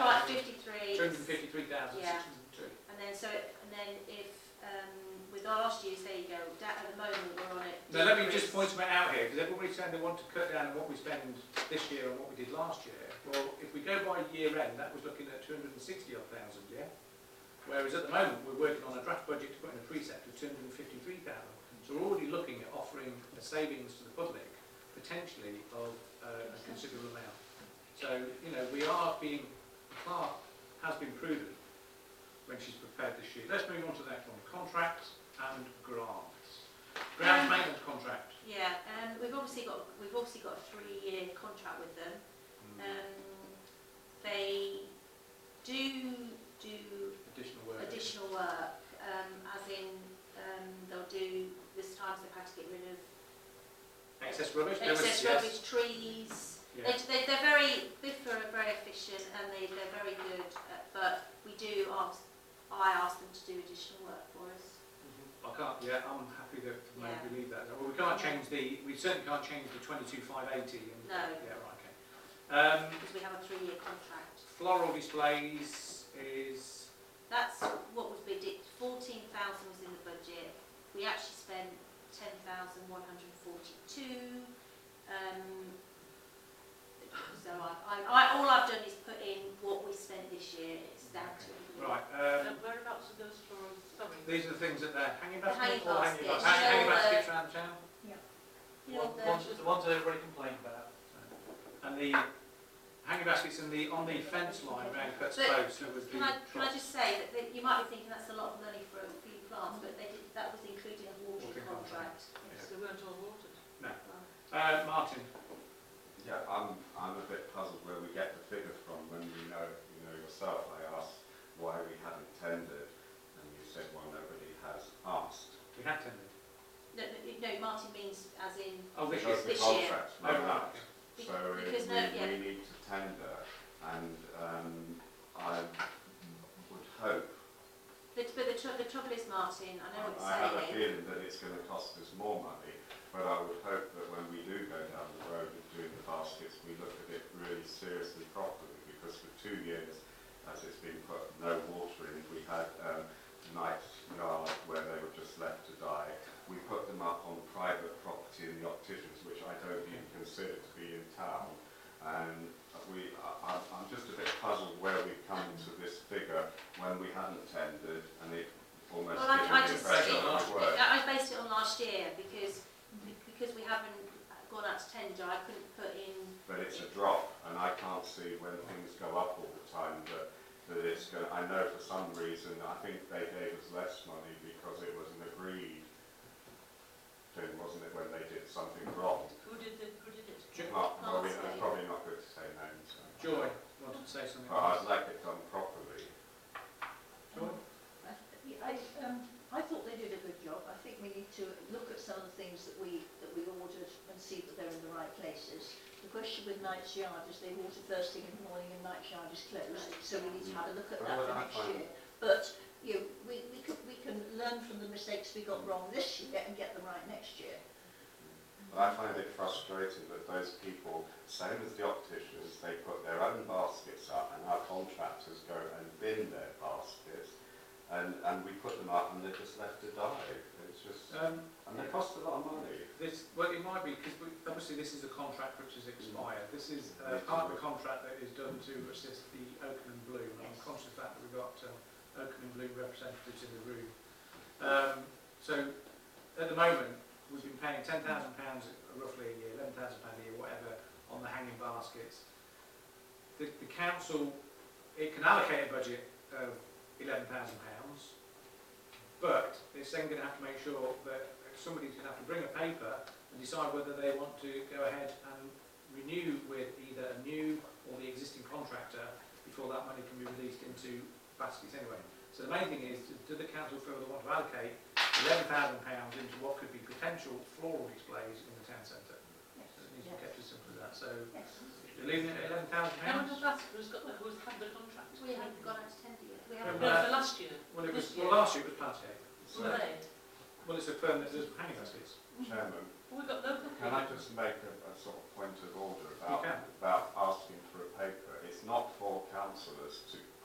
253,602. Yeah. And then so, it- and then if, um, with last year's, there you go, that at the moment we're on it. Now, let me just point something out here, because everybody's saying they want to cut down on what we spend this year and what we did last year. Well, if we go by year end, that was looking at 260 odd thousand, yeah? Whereas at the moment, we're working on a draft budget to put in a precept of 253,000. So we're already looking at offering a savings to the public, potentially of uh, a considerable amount. So, you know, we are being, Clark has been prudent when she's prepared this sheet. Let's move on to the next one, contracts and grants. Ground maintenance contract. Yeah, um, we've obviously got, we've obviously got a three-year contract with them. Mm-hmm. Um, they do do Additional work. additional work, um, as in, um, they'll do, this time they've had to get rid of Excess rubbish. there was- excess yes, rubbish, trees. yeah. They, they, they're very, Biffa are very efficient and they, they're very good, at, but we do ask, I ask them to do additional work for us. I can't, yeah, I'm happy that we Yeah. leave that. Well, we can't change the, we certainly can't change the 22,580. and- No. Yeah, right, okay. Um, because we have a three-year contract. floral displays is, That's what was bidded, fourteen thousand was in the budget, we actually spent ten thousand one hundred and forty-two. Um, so I, I, I, all I've done is put in what we spent this year, it's down to. right, um, Whereabouts are those florals, sorry? these are the things that they're hanging The hanging baskets or hanging baskets, uh, baskets? Hanging you know, baskets around town? You know, the- Ones, the ones that everybody complained about. And the hanging baskets and the, on the fence line around Cuts But Close, that was the... Can I, can I just say that, that you might be thinking that's a lot of money for a few plants, but they did, that was included in the Water watering contract. contract. Yes, they weren't all watered. Uh, Martin, Yeah, I'm, I'm a bit puzzled where we get the figure from when you know, you know yourself, I asked why we hadn't tendered, and you said, well, nobody has asked. we had tendered. No, no, no, Martin means as in, Oh, this Because is, the This year. contract's oh, run right, out. okay. Be- So it- because no- we, yeah. we need to tender, and, um, I would hope, but, but the, tr- the trouble is, Martin, I know what I have you're a saying, feeling that it's gonna cost us more money, but I would hope that when we do go down the road of doing the baskets, we look at it really seriously properly, because for two years, as it's been put, no water in, we had, um, night yard where they were just left to die. We put them up on private property in the opticians, which I don't even consider to be in town. And we, I, I'm- I'm just a bit puzzled where we've come to this figure when we hadn't tendered, and it almost Well, I- gives I me the just impression think- that it worked. I, I based it on last year, because, because we haven't gone out to tender, I couldn't put in but it's a drop, and I can't see when things go up all the time that, that it's going. I know for some reason, I think they gave us less money because it was an agreed thing, wasn't it, when they did something wrong? Who did the, who did it? Jo- Not, well, we, Honestly. it's probably not good to say names. so- Joy wanted to say something. But I'd like it done properly. Joy? I, um, I thought they did a good job. I think we need to look at some of the things that we, that we ordered and see that they're in the right places. The question with Knight's Yard is they water first thing in the morning and Knight's Yard is closed, so we need to have a look at that Well, for I next find- year. But, you know, we, we can, we can learn from the mistakes we got wrong this year and get them right next year. But I find it frustrating that those people, same as the opticians, they put their own baskets up and our contractors go and bin their baskets and, and we put them up and they're just left to die. It's just, Um, and they cost a lot of money. This, well, it might be, because obviously this is a contract which has expired. This is uh, part of a contract that is done to assist the Oakham and Blue, and I'm Yes. conscious of that we've got uh, Oakham and Blue representatives in the room. Um, so, at the moment, we've been paying £10,000 roughly a year, £11,000 a year, whatever, on the hanging baskets. The, the council, it can allocate a budget of £11,000, but it's then going to have to make sure that somebody's going to have to bring a paper and decide whether they want to go ahead and renew with either a new or the existing contractor before that money can be released into baskets anyway. So the main thing is, do the council feel they want to allocate eleven thousand pounds into what could be potential floral displays in the town centre? So it needs to be kept as simple as that, so Yes. you're leaving it at eleven thousand Can I pounds? just ask who's got the, who's had the contract? We haven't gone out to tender yet. We No, haven't. Well, for last year, Well, it was, This well, year. last year it was part eight. were they? Well, it's a firm that does hanging baskets. Chairman, Well, we've got local can I people. just make a, a sort of point of order You about, can. about asking for a paper? It's not for councillors to